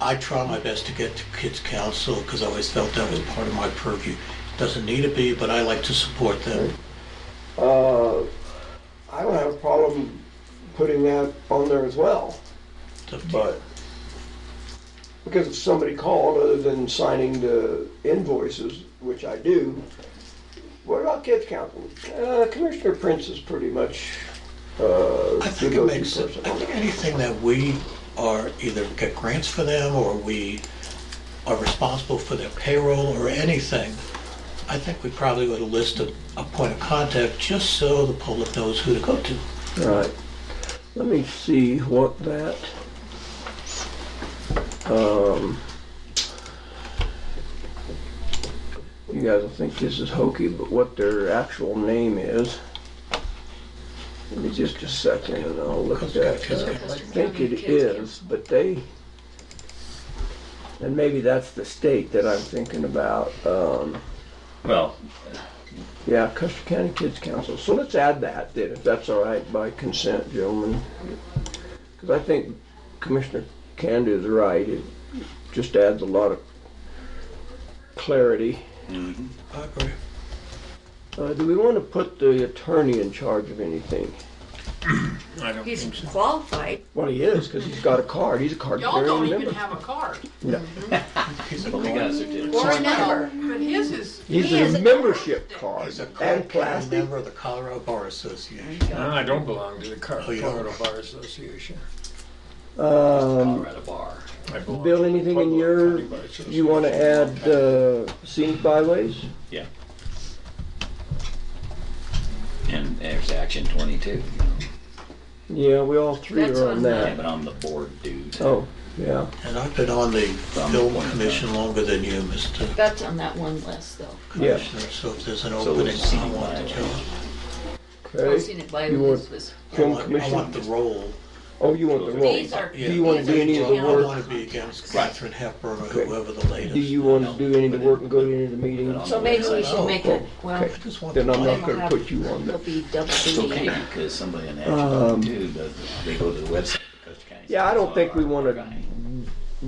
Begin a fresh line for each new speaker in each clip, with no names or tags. I try my best to get to kids' council because I always felt that was part of my purview. Doesn't need to be, but I like to support them.
Uh, I don't have a problem putting that on there as well,
It's up to you.
but because if somebody called other than signing the invoices, which I do, what about kids council? Uh, Commissioner Prince is pretty much, uh,
I
the
think it
go-to
makes sense.
person.
I think anything that we are either get grants for them or we are responsible for their payroll or anything, I think we probably ought to list a, a point of contact just so the public knows who to go to.
All right. Let me see what that, um, you guys will think this is hokey, but what their actual name is. Give me just a second and I'll look at that. I think it is, but they, and maybe that's the state that I'm thinking about. Um,
Well,
yeah, Custer County Kids Council. So let's add that then, if that's all right, by consent, gentlemen. Because I think Commissioner Canada is right. It just adds a lot of clarity.
I agree.
Uh, do we want to put the attorney in charge of anything?
He's qualified.
Well, he is, because he's got a card. He's a card
Y'all don't
carrying
even
member.
have a card
He's a,
we got a certificate.
Or a number.
but his is.
He's
he is
a
a-
membership card
he's a
and
current
plastic.
member of the Colorado Bar Association.
No, I don't belong to the Car-
Oh, you don't?
Colorado Bar Association.
Um,
Colorado bar.
I belong
Bill,
to the
anything in
Pueblo
your,
County Bar Association.
you want to add uh, scenic byways?
Yeah. And there's action twenty-two. you know.
Yeah, we all three
That's
are on
on
Yeah,
that.
but I'm the board dude.
Uh, Oh, yeah.
And I've been on the film commission longer than you, Mr.
That's on that one list, though.
Yeah.
Commissioner, so if there's an
So
opening,
it's
I want the
CY.
job.
I've
Okay.
seen it by
You want-
this was-
I
Film
want, I
commission.
want the role.
Oh, you want the role.
These are.
Do you want to
these
do
are
any of the
town
I
work?
want to be against Catherine Hepburn or
Okay.
whoever the latest.
Do you want to do any of the work and go to any of the
But
meetings?
So maybe we
Oh,
should make it, well,
I just want
Then
the
I'm
money.
not going to put you on there.
it'll be double
It's okay,
duty.
because somebody in
Um,
action twenty-two does, they go to the website. for Custer County
Yeah, I don't
Council,
think we
our-
want
our
to
guy.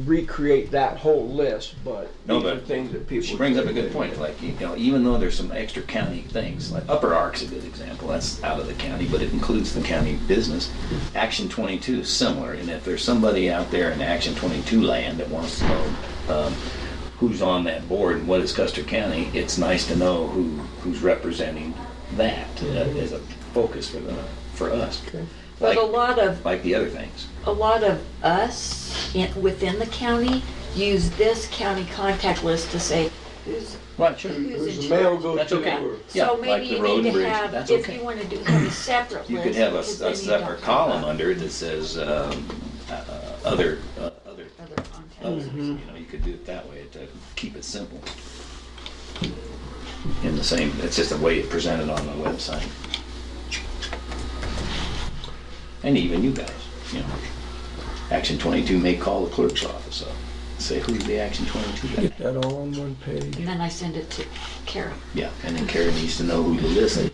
recreate that whole list, but
No,
these are
but
things that people.
She brings up a good point, like, you know, even though there's some extra county things, like Upper Ark's a good example, that's out of the county, but it includes the county business. Action twenty-two is similar, and if there's somebody out there in Action twenty-two land that wants to know, um, who's on that board and what is Custer County, it's nice to know who, who's representing that uh, as a focus for the, for us.
But a
Like,
lot of,
like the other things.
a lot of us in, within the county use this county contact list to say who's,
Right, sure.
who's
There's
in
a mail
charge.
go
That's
to.
okay. Yeah,
So
like
maybe
the
you
road
need
and
to
bridge,
have,
that's
if
okay.
you want to do have a separate list.
You could have a,
because
a
then you don't
separate
have
column under it that says, um, uh, uh, other, uh, other,
other contacts.
others, you know, you could do it that way to keep it simple. In the same, it's just the way it presented on the website. And even you guys, you know, Action twenty-two may call the clerk's office up, and say, who's the Action twenty-two guy?
Get that all on one page.
And then I send it to Karen.
Yeah, and then Karen needs to know who to listen.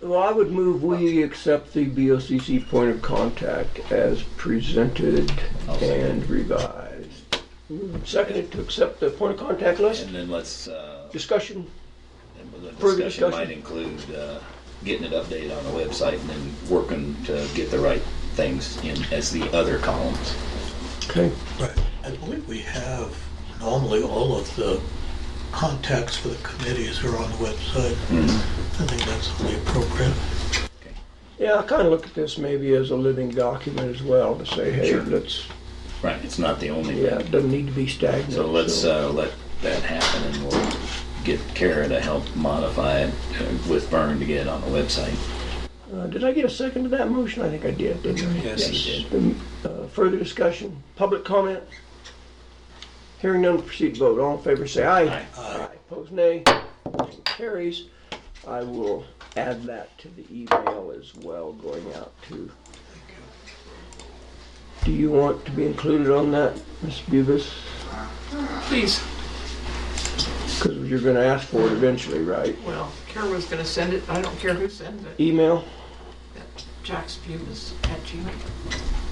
Well, I would move we accept the BOCC point of contact as presented
I'll second.
and revised. Seconded to accept the point of contact list.
And then let's, uh,
Discussion.
And The
Further
discussion
discussion?
might include uh, getting it updated on the website and then working to get the right things in as the other columns.
Okay.
Right. I believe we have normally all of the contacts for the committees are on the website.
Mm-hmm.
I think that's only appropriate.
Yeah, I kind of look at this maybe as a living document as well to say, hey,
Sure.
let's,
Right, it's not the only
yeah,
thing.
it doesn't need to be stagnant.
So let's uh, let that happen and we'll get Kara to help modify it uh, with Vern to get it on the website.
Uh, Did I get a second to that motion? I think I did, didn't I?
Yes, you
Um, uh, Further discussion, public comment? Hearing none, proceed to vote. All in favor, say aye.
Aye.
Aye. Opposed, nay. Motion Carries. I will add that to the email as well going out to. Do you want to be included on that, Ms. Bubus?
Please,
Because you're going to ask for it eventually, right?
well, Kara was gonna send it, I don't care who sends it,
Email?
Jack's Bubis at Gmail.